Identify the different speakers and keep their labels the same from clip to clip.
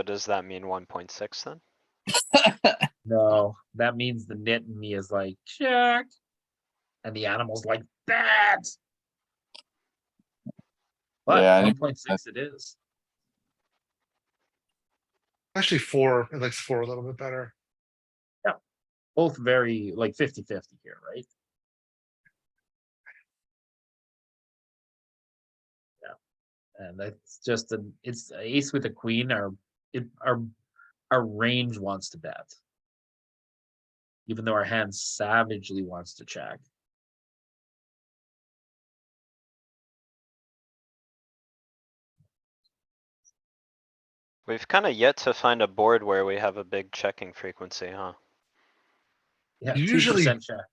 Speaker 1: But does that mean one point six then?
Speaker 2: No, that means the knit in me is like, check. And the animal's like, that.
Speaker 3: Yeah, I
Speaker 2: But one
Speaker 3: think-
Speaker 2: point six it is.
Speaker 4: Actually, four, it likes four a little bit better.
Speaker 2: Both very like 50 50 here, right? Yeah. And that's just an it's a ace with a queen. Our it our our range wants to bet. Even though our hand savagely wants to check.
Speaker 1: We've kinda yet to find a board where we have a big checking frequency, huh?
Speaker 2: Yeah,
Speaker 4: Usually-
Speaker 2: 2% check.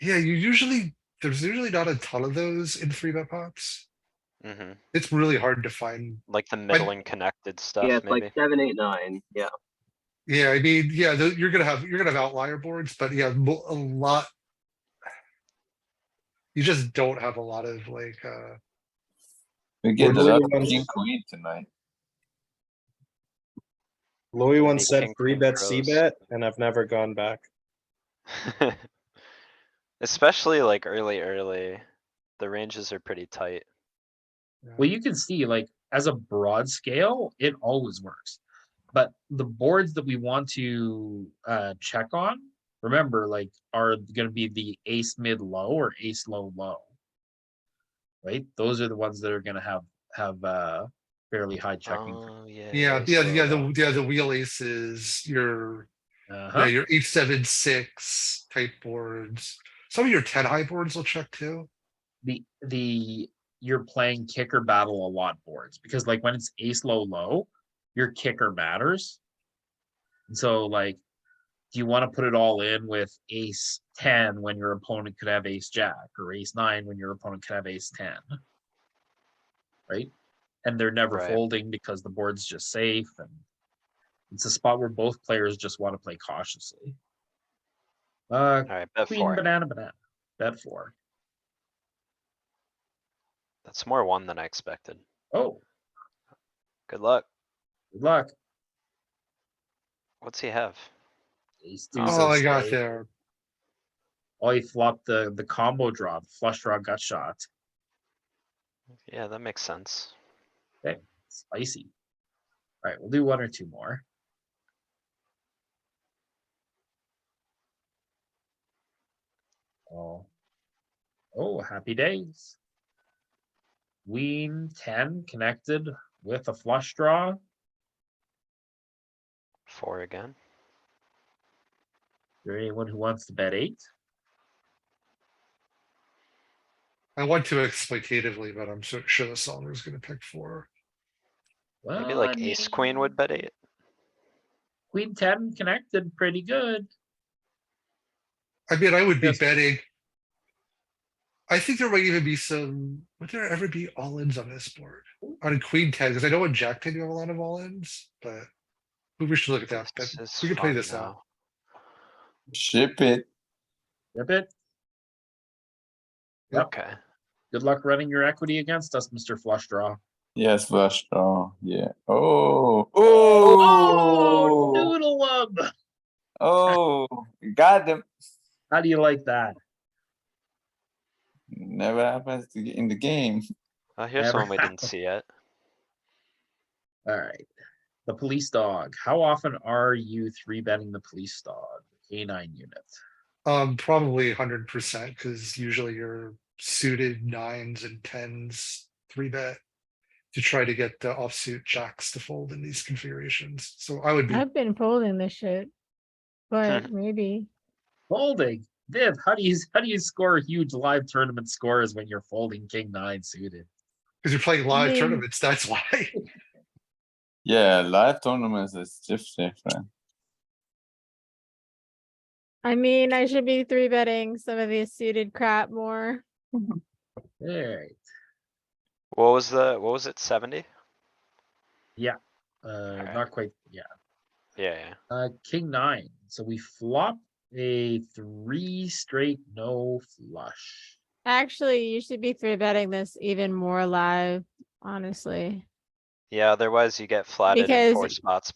Speaker 4: Yeah, you usually, there's usually not a ton of those in three bet pops.
Speaker 1: Mm-hmm,
Speaker 4: It's really hard to find.
Speaker 1: like the middling connected
Speaker 5: Yeah,
Speaker 1: stuff,
Speaker 5: it's
Speaker 1: maybe.
Speaker 5: like seven, eight, nine, yeah.
Speaker 4: Yeah, I mean, yeah, tho- you're gonna have, you're gonna have outlier boards, but yeah, mo- a lot. You just don't have a lot of like, uh,
Speaker 3: We get
Speaker 6: Louis
Speaker 3: the
Speaker 6: wants-
Speaker 3: king queen tonight.
Speaker 6: Louis once said
Speaker 1: king,
Speaker 6: three
Speaker 1: queen
Speaker 6: bet, C
Speaker 1: throws.
Speaker 6: bet, and I've never gone back.
Speaker 1: Especially like early, early, the ranges are pretty tight.
Speaker 2: Well, you can see like as a broad scale, it always works. But the boards that we want to uh, check on, remember, like are going to be the ace mid low or ace low low. Right? Those are the ones that are going to have have uh, fairly high checking. fre-
Speaker 1: Oh, yeah.
Speaker 4: yeah,
Speaker 1: ace
Speaker 4: yeah,
Speaker 1: low
Speaker 4: yeah,
Speaker 1: low.
Speaker 4: the, yeah, the wheel aces, your, yeah,
Speaker 2: Uh-huh.
Speaker 4: your eight, seven, six type boards. Some of your ten high boards will check too.
Speaker 2: The the you're playing kicker battle a lot boards because like when it's ace low low, your kicker matters. And so like, do you want to put it all in with ace ten when your opponent could have ace jack or ace nine when your opponent could have ace ten? Right? And they're never
Speaker 1: Right.
Speaker 2: folding because the board's just safe and it's a spot where both players just want to play cautiously. Uh,
Speaker 1: Alright, bet
Speaker 2: queen,
Speaker 1: four.
Speaker 2: banana, banana, bet four.
Speaker 1: That's more one than I expected.
Speaker 2: Oh,
Speaker 1: Good luck.
Speaker 2: good luck.
Speaker 1: What's he have?
Speaker 2: Ace
Speaker 1: Oh,
Speaker 2: deuce
Speaker 4: All I
Speaker 2: of
Speaker 4: got
Speaker 2: spades.
Speaker 4: there,
Speaker 2: Oh, he flopped the, the combo draw, the flush draw got shot,
Speaker 1: Yeah, that makes sense.
Speaker 2: spicy. Alright, we'll do one or two more. Oh. Oh, happy days. Queen ten connected with a flush draw,
Speaker 1: Four again.
Speaker 2: there anyone who wants to bet eight?
Speaker 4: I want to exploitatively, but I'm so sure the solver's gonna pick four.
Speaker 1: Maybe
Speaker 4: Uh,
Speaker 2: Well,
Speaker 1: like
Speaker 2: I
Speaker 1: ace queen would
Speaker 2: mean,
Speaker 1: bet eight.
Speaker 2: Queen ten connected pretty good.
Speaker 4: I mean, I would be
Speaker 2: Yes.
Speaker 4: betting. I think there might even be some, would there ever be all ins on this board? On a queen ten, because I know on jack ten, you have a lot of all ins, but we should look at that.
Speaker 1: This
Speaker 4: but
Speaker 1: is
Speaker 4: We can play
Speaker 1: fun
Speaker 4: this
Speaker 1: now.
Speaker 4: out.
Speaker 3: Ship it.
Speaker 2: Rip it. Yep.
Speaker 1: Okay,
Speaker 2: Good luck running your equity against us, Mr. Flush Draw.
Speaker 3: Yes, flush draw. Yeah. Oh, oh,
Speaker 2: Noodle love.
Speaker 3: oh, got him.
Speaker 2: How do you like that?
Speaker 3: Never happens to get in the game.
Speaker 1: well, here's
Speaker 2: Never
Speaker 1: one we didn't see yet.
Speaker 2: All right. The police dog. How often are you three betting the police dog? Canine unit.
Speaker 4: Um, probably hundred percent, because usually your suited nines and tens, three bet. To try to get the offsuit jacks to fold in these configurations, so I would be,
Speaker 7: I've been folding this shit, but maybe
Speaker 2: Folding. Viv, how do you how do you score huge live tournament scores when you're folding king nine suited?
Speaker 4: because you're playing live
Speaker 7: mean-
Speaker 4: tournaments, that's why.
Speaker 3: Yeah, live tournaments is just different.
Speaker 7: I mean I should be three betting some of the suited crap more.
Speaker 2: All right.
Speaker 1: What was the, what was it, seventy?
Speaker 2: Uh,
Speaker 1: right.
Speaker 2: not quite. Yeah.
Speaker 1: Yeah, yeah.
Speaker 2: Uh, king nine. So we flop a three straight no flush.
Speaker 7: Actually, you should be three betting this even more live, honestly. Yeah, otherwise you get flattened in
Speaker 1: Because-
Speaker 7: four spots